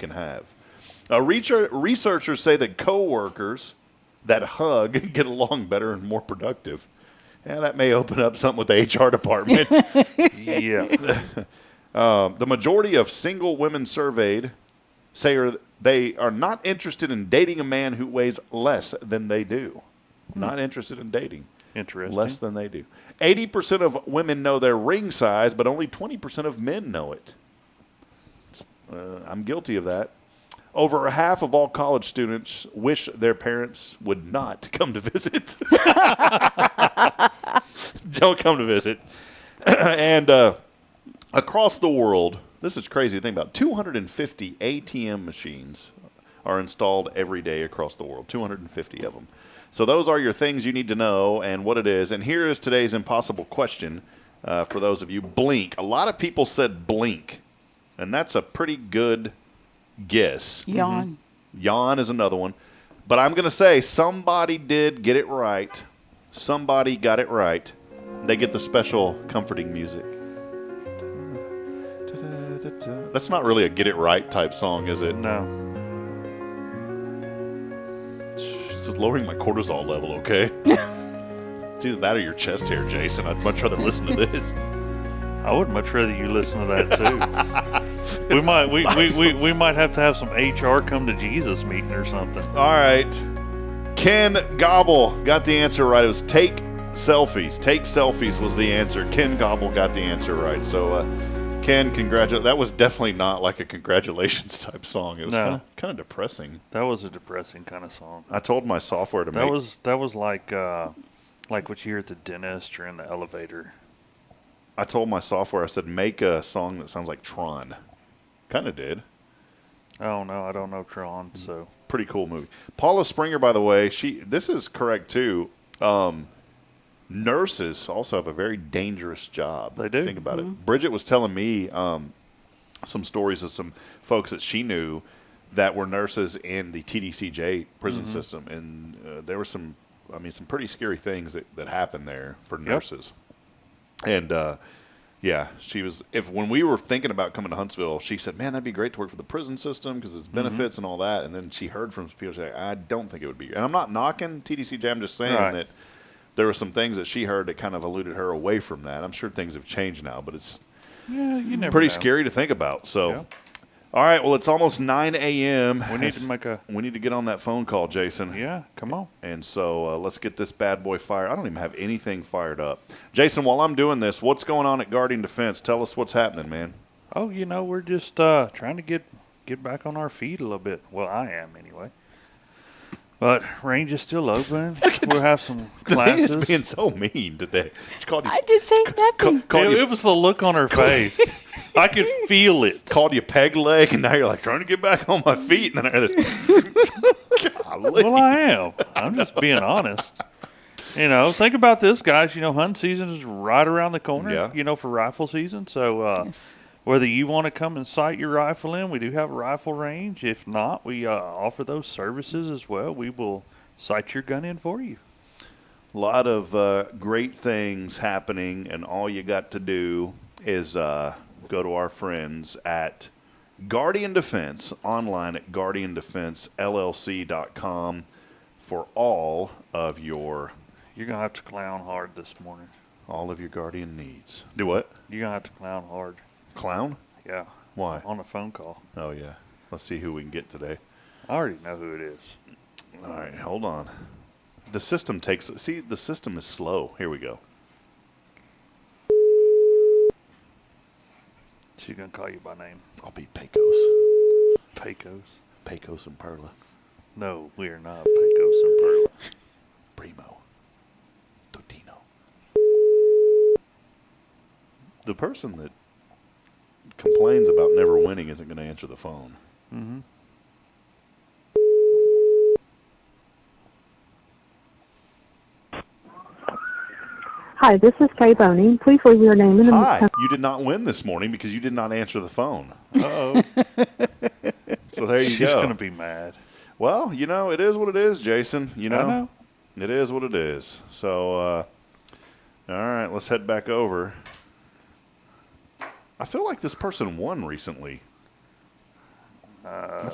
can have. Uh, reacher, researchers say that coworkers that hug get along better and more productive. Yeah, that may open up something with the HR department. yeah. Um, the majority of single women surveyed say are, they are not interested in dating a man who weighs less than they do. Not interested in dating. Interesting. Less than they do. 80% of women know their ring size, but only 20% of men know it. Uh, I'm guilty of that. Over half of all college students wish their parents would not come to visit. Don't come to visit. and uh, across the world, this is crazy to think about 250 ATM machines are installed every day across the world. 250 of them. So those are your things you need to know and what it is. And here is today's impossible question uh, for those of you: Blink. A lot of people said blink, and that's a pretty good guess. Yawn. Yawn is another one. But I'm going to say somebody did get it right. Somebody got it right. They get the special comforting music. That's not really a get it right type song, is it? No. This is lowering my cortisol level, okay? it's either that or your chest hair, Jason. I'd much rather listen to this. I would much rather you listen to that too. we might we, we, we, we might have to have some HR come to Jesus meeting or something. All right. Ken Gobble got the answer right. It was take selfies. Take selfies was the answer. Ken Gobble got the answer right. So, uh, Ken, congratulate. That was definitely not like a congratulations type song. It was No. kind, of, kind of depressing. That was a depressing kind of song. I told my software to That make. was that was like uh, like what you hear at the dentist or in the elevator. I told my software. I said make a song that sounds like Tron. Kind of did. Oh no, I don't know Tron, so pretty cool movie. Paula Springer, by the way, she this is correct too. Um, nurses also have a very dangerous job. They do. Mm-hmm. Think about it. Bridget was telling me um, some stories of some folks that she knew that were nurses in the TDCJ prison Mm-hmm. system, and uh, there were some, I mean, some pretty scary things that that happened there for nurses. And uh, yeah, she was. If when we were thinking about coming to Huntsville, she said, "Man, that'd be great to work for the prison system because Mm-hmm. it's benefits and all that." And then she heard from some people say, "I don't think it would be." And I'm not knocking TDCJ. I'm just saying Right. that there were some things that she heard that kind of eluded her away from that. I'm sure things have changed now, but it's yeah, you never pretty know. scary to think about. So, Yeah. all right, well, it's almost 9 a.m. We need to make a We need to get on that phone call, Jason. yeah. Come on. And so uh, let's get this bad boy fired. I don't even have anything fired up. Jason, while I'm doing this, what's going on at Guardian Defense? Tell us what's happening, man. Oh, you know, we're just uh, trying to get get back on our feet a little bit. Well, I am anyway. But range is still open. we'll have some He is classes. being so mean today. She called you, I did say ca- nothing. called, Dude, you, it was the look on her face. I could feel it. called you peg leg, and now you're like trying to get back on my feet. And then I hear this. Golly. Well, I am. I'm just being honest. You know, think about this, guys. You know, hunt season is right around the corner. Yeah. You know, for rifle season. So, uh, Yes. whether you want to come and sight your rifle in, we do have a rifle range. If not, we uh, offer those services as well. We will sight your gun in for you. A lot of uh, great things happening, and all you got to do is uh, go to our friends at Guardian Defense online at guardiandefensellc.com for all of your You're gonna have to clown hard this morning. all of your guardian needs. Do what? You're gonna have to clown hard. Clown? Yeah. Why? On a phone call. Oh yeah. Let's see who we can get today. I already know who it is. All right, hold on. The system takes see the system is slow. Here we go. She's gonna call you by name. I'll be Pecos. Pecos. Pecos and Perla. No, we are not Pecos and Perla. Primo. Totino. The person that complains about never winning isn't going to answer the phone. Hi, this is Kay Boney. Please leave your name and a Hi, you did not win this morning because you did not answer the phone. Oh, So there you she's go. gonna be mad. well, you know, it is what it is, Jason. You know, I know. it is what it is. So, uh, all right, let's head back over. I feel like this person won recently. Uh,